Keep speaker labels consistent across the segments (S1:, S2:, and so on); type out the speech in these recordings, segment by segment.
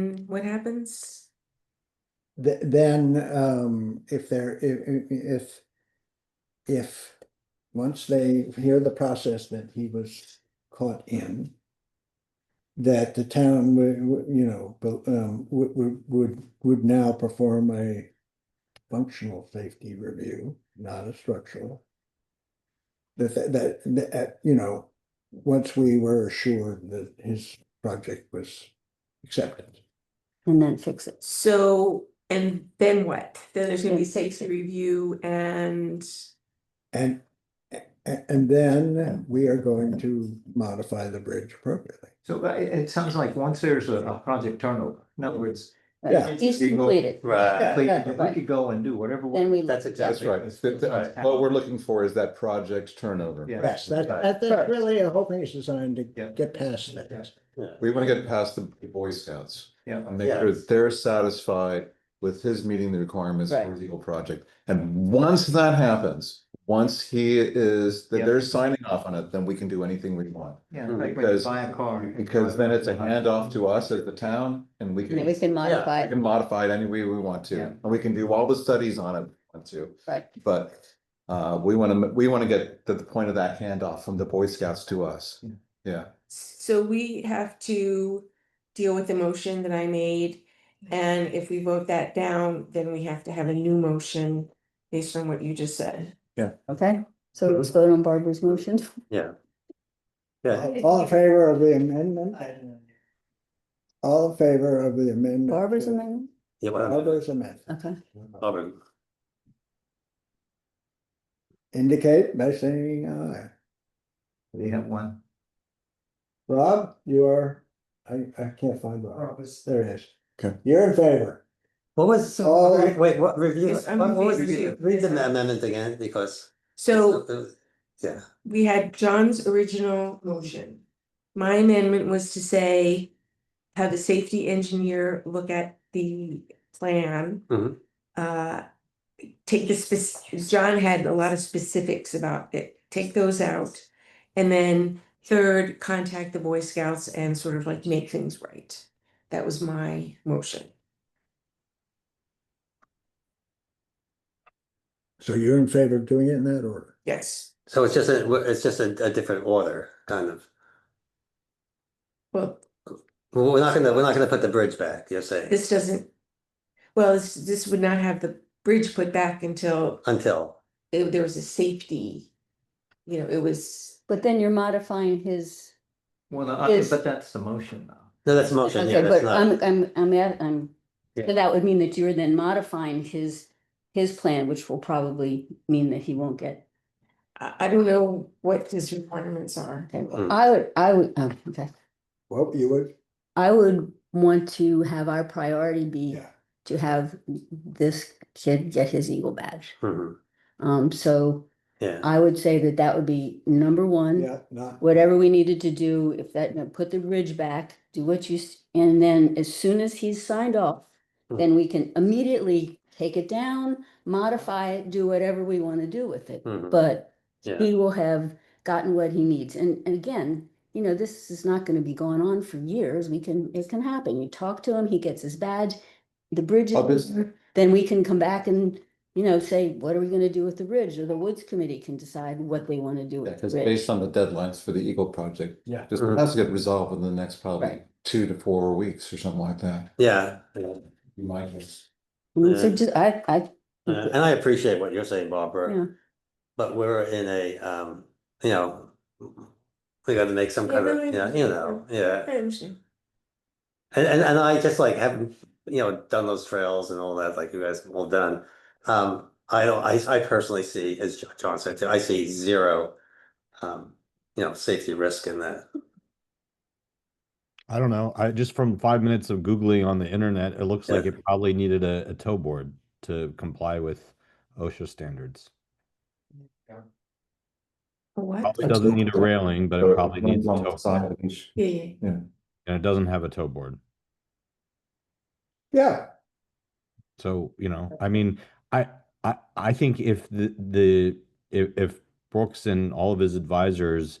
S1: Mm, What happens?
S2: Th- then, um, if they're, if, if, if, once they hear the process that he was caught in, that the town would, would, you know, bu- um, would, would, would, would now perform a functional safety review, not a structural. That, that, that- that, uh, you know, once we were assured that his project was accepted.
S3: and then fix it.
S1: So, and then what? Then there's gonna be
S3: Then fix
S1: safety
S3: it.
S1: review and,
S2: And, a- a- and then we are going to modify the bridge appropriately.
S4: So uh, it, it sounds like once there's a, a project turnover, in other words.
S3: Right,
S2: Yeah.
S3: He's
S4: you go-
S3: completed.
S5: Right.
S4: Please,
S2: yeah,
S4: We could go and do whatever. we-
S3: Then we
S4: That's
S3: look.
S4: exactly.
S5: That's right. Th- th-
S4: Right.
S5: What we're looking for is that project's turnover.
S4: Yeah.
S2: Yes, that,
S4: Right.
S2: that, that's really, the whole thing is designed to
S4: Yeah.
S2: get past that.
S5: We want to get past the Boy Scouts
S4: Yeah.
S5: and make sure that they're satisfied with his meeting the requirements for
S3: Right.
S5: the Eagle project. And once that happens, once he is, that
S4: Yeah.
S5: they're signing off on it, then we can do anything we want.
S4: Yeah, like when you
S5: Because-
S4: buy a car.
S5: Because then it's a handoff to us as the town and we
S3: And then we
S5: can,
S3: can modify
S5: we
S3: it,
S5: can modify it any way we want to.
S4: Yeah.
S5: And we can do all the studies on it, if we want to.
S3: right?
S5: But uh, we want to, we want to get to the point of that handoff from the Boy Scouts to us.
S4: Yeah.
S5: Yeah.
S1: so we have to deal with the motion that I made. And if we vote that down, then we have to have a new motion based on what you just said.
S3: Okay, so let's vote on Barbara's motion.
S6: Yeah,
S2: All- All in favor of the amendment? All in favor of the amendment?
S3: Barbara's
S2: to-
S3: amendment?
S6: yeah, well,
S2: Barbara's amendment.
S3: Okay,
S6: Robin,
S2: Indicate by saying aye.
S4: We have one.
S2: Rob, you are, I, I can't find Rob.
S4: was.
S2: There it is.
S5: Okay.
S2: You're in favor.
S6: what was,
S2: All right.
S6: wait, what review,
S1: Oh, Yes,
S6: what
S1: I'm
S6: what was,
S1: confused.
S6: read the amendment again, because. uh,
S1: So
S6: Yeah,
S1: we had John's original motion. My amendment was to say, have the safety engineer look at the plan.
S6: Mhm.
S1: Uh, take the spec, John had a lot of specifics about it, take those out. And then third, contact the Boy Scouts and sort of like make things right. That was my motion.
S2: So you're in favor of doing it in that order?
S1: Yes.
S6: so it's just a, it's just a, a different order, kind of.
S1: Well,
S6: Well, We're not gonna, we're not gonna put the bridge back, you're saying,
S1: this doesn't, well, this, this would not have the bridge put back until
S6: until,
S1: it- there was a safety, you know, it was,
S3: but then you're modifying his,
S4: Well, no, I-
S3: Is-
S4: but that's the motion now.
S6: no, that's a motion, yeah,
S3: okay,
S6: that's
S3: but
S6: not,
S3: I'm, I'm, I'm, at- I'm.
S6: Yeah.
S3: so That would mean that you're then modifying his, his plan, which will probably mean that he won't get.
S1: I, I don't know what his requirements are.
S3: Okay, well,
S6: Mm.
S3: I would, I would, oh, okay,
S2: Well, you would,
S3: I would want to have our priority be
S2: yeah.
S3: to have this kid get his Eagle badge.
S6: Mhm,
S3: Um, so
S6: yeah,
S3: I would say that that would be number one.
S2: Yeah, not,
S3: whatever we needed to do, if that, no, put the ridge back, do what you, s- and then as soon as he's signed off,
S6: Mm.
S3: then we can immediately take it down, modify it, do whatever we want to do with it.
S6: Mhm.
S3: But
S6: yeah,
S3: he will have gotten what he needs. And, and again, you know, this is not going to be going on for years. We can, it can happen. You talk to him, he gets his badge, the bridge
S5: Well,
S3: is
S5: this-
S3: then we can come back and, you know, say, what are we going to do with the ridge? Or the Woods Committee can decide what they want to do
S5: Yeah,
S3: with the
S5: because
S3: ridge.
S5: based on the deadlines for the Eagle project.
S2: Yeah.
S5: This
S6: Mhm.
S5: has to get resolved within the next probably
S3: Right.
S5: two to four weeks or something like that.
S6: yeah. yeah. Uh,
S5: You might just.
S3: Mm, So
S6: Yeah.
S3: just, I, I. think
S6: Yeah,
S3: that-
S6: and I appreciate what you're saying,
S3: Yeah.
S6: Barbara. But we're in a, um, you know, we gotta make some
S1: Yeah,
S6: kind
S1: no, I
S6: of, yeah, you
S1: understand.
S6: know, yeah.
S1: I understand.
S6: And, and, and I just like haven't, you know, done those trails and all that, like you guys have all done. Um, I don't, I, I personally see, as Jo- John said, too, I see zero, um, you know, safety risk in that.
S7: I don't know. I just from five minutes of Googling on the internet, it looks like
S6: Yeah.
S7: it probably needed a, a tow board to comply with OSHA standards.
S1: A What?
S7: Probably doesn't need a railing, but it probably needs a tow board.
S1: Yeah, yeah.
S7: And it doesn't have a tow board.
S2: yeah.
S7: So, you know, I mean, I, I, I think if the, the, if, if Brooks and all of his advisors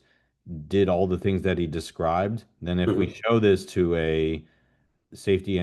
S7: did all the things that he described, then if we show this to a safety